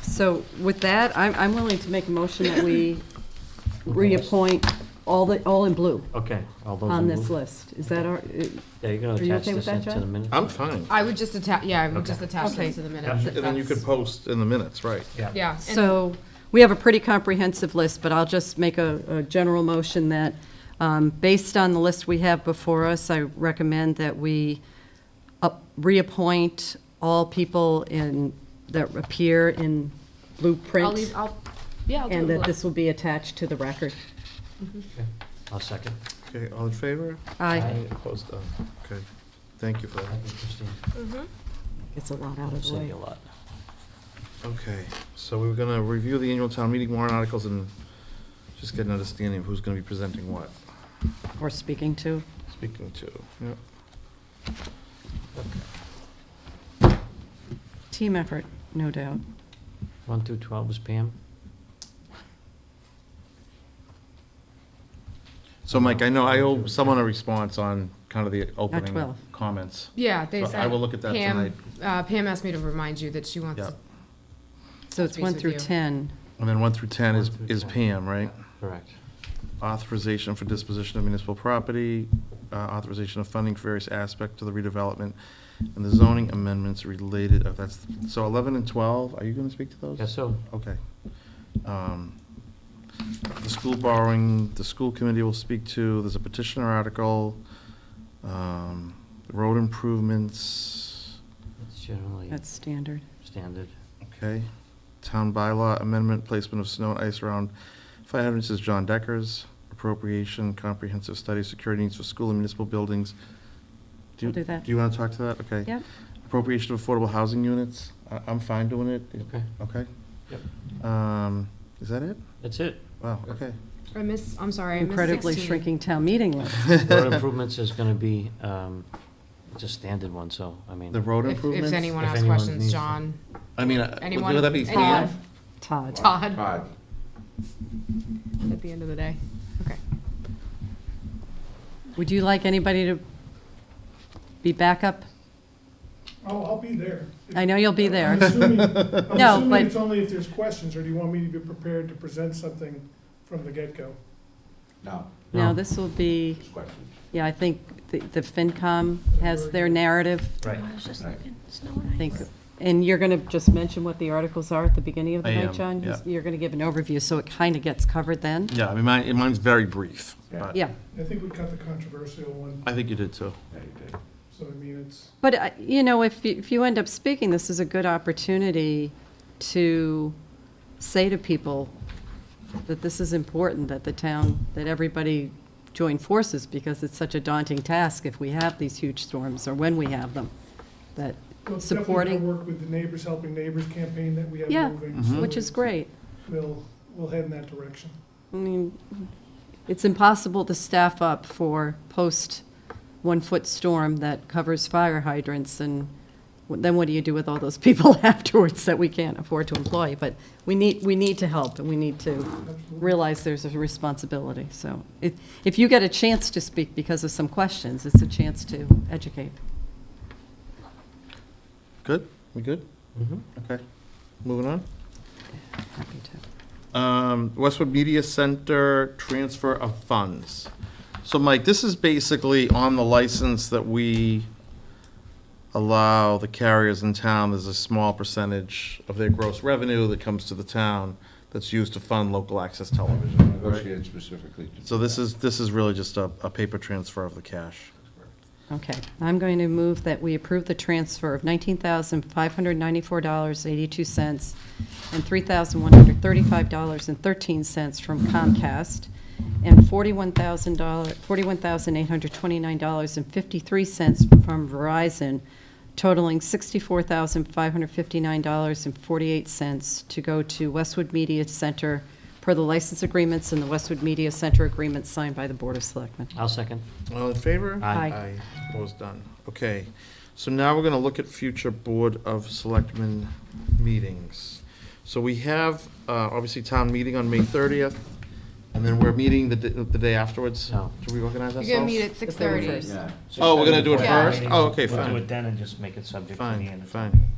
So with that, I'm, I'm willing to make a motion that we reappoint all the, all in blue Okay, all those. on in this blue? list. Is that our, Yeah, you're Are gonna you attach okay with this that, into John? the minute? I'm fine. I would just attach, yeah, I would just Okay. attach Okay. this to the minutes. And And then you could That's- post in the minutes, right? Yeah. and- so, we have a pretty comprehensive list, but I'll just make a, a general motion that, um, based on the list we have before us, I recommend that we up- reappoint all people in, that appear in I'll leave, Blueprint, I'll, yeah, I'll do and it. that this will be attached to the record. Okay, I'll second. Okay, all in favor? Aye. Aye, Opposed, Done. okay. Thank you for that. Thank you, Christine. It's a lot out of the Save way. you a lot. Okay, so we were gonna review the annual town meeting warrant articles and just get an understanding of who's gonna be presenting what, Or speaking to. speaking to, yep. Team effort, no doubt. One through 12 is Pam? So Mike, I know I owe someone a response on kind of the opening 12. comments. Yeah, they So I said. will look at that Pam- Uh, Pam asked me to remind you that she wants, Yep. So it's Agrees 1 with through you. 10. And then one through ten is, One through is 10. Pam, right? Correct. Authorization for disposition of municipal property, uh, authorization of funding for various aspects of the redevelopment, and the zoning amendments related, of that's, so eleven and twelve, are you gonna speak to those? Guess so. Okay. Um, The school borrowing, the school committee will speak to, there's a petitioner article, um, road improvements, It's generally That's standard. standard. okay? Town bylaw amendment, placement of snow and ice around fire hydrants is John Decker's, appropriation, comprehensive study, security needs for school and municipal buildings. you- I'll do that. Do you want to talk to that? Okay. Yep. Appropriation of affordable housing units, I, I'm fine doing it. Okay. Okay? Yep. Um, is that it? That's it. Wow, okay. I miss, I'm sorry, I missed Incredibly 16. shrinking town meeting list. Road improvements is gonna be, um, it's a standard one, so, I mean. The road If, improvements? if anyone If has anyone questions, needs- John, I mean, uh, would anyone, would that be anyone, Pam? Todd. Todd, Todd. at the end of the day. Okay. Would you like anybody to be backup? Oh, I'll be there. I know you'll be I'm there. assuming, I'm No, but- assuming it's only if there's questions, or do you want me to be prepared to present something from the get-go? No, Now, this will be, just questions. yeah, I think the the FinCom has their narrative, Right. I think. And you're going to just mention what the articles are at the beginning of the I night, am, John? yeah. You're going to give an overview, so it kind of gets covered then? Yeah, I mean, mine, mine's very brief, but Yeah. I think we cut the controversial one, I think you did too. Yeah, you did. so I mean, it's, But, uh, you know, if, you- if you end up speaking, this is a good opportunity to say to people that this is important, that the town, that everybody join forces, because it's such a daunting task if we have these huge storms, or when we have them, that we'll definitely gonna supporting, work with the Neighbors Helping Neighbors campaign that we have Yeah, moving. Mhm. so which is great. We'll, we'll head in that direction. I mean, it's impossible to staff up for post-one-foot storm that covers fire hydrants, and then what do you do with all those people afterwards that we can't afford to employ? But we need, we need to help, and we need to Absolutely. realize there's a responsibility. So if, if you get a chance to speak because of some questions, it's a chance to educate. Good? We good? Mhm. Okay. Moving on. Happy to. Um, Westwood Media Center transfer of funds. So Mike, this is basically on the license that we allow the carriers in town, there's a small percentage of their gross revenue that comes to the town that's used to fund local access television. Negotiate specifically. to- So this is, this is really just a, a paper transfer of the cash. Okay, I'm going to move that we approve the transfer of $19,594.82 and $3,135.13 from Comcast, and $41,000 $41,829.53 from Verizon, totaling $64,559.48 to go to Westwood Media Center per the license agreements and the Westwood Media Center agreement signed by the Board of Selectmen. I'll second. All in favor? Aye. Aye, opposed, done. Okay, so now we're gonna look at future Board of Selectmen meetings. So we have, uh, obviously, town meeting on May thirtieth, and then we're meeting the, d- the day afterwards. No. Do we organize ourselves? You're gonna meet at six thirty. first. Yeah. Oh, we're gonna do it Yeah. first? Oh, okay, We'll do it fine, then and just make it subject to the fine, end. fine.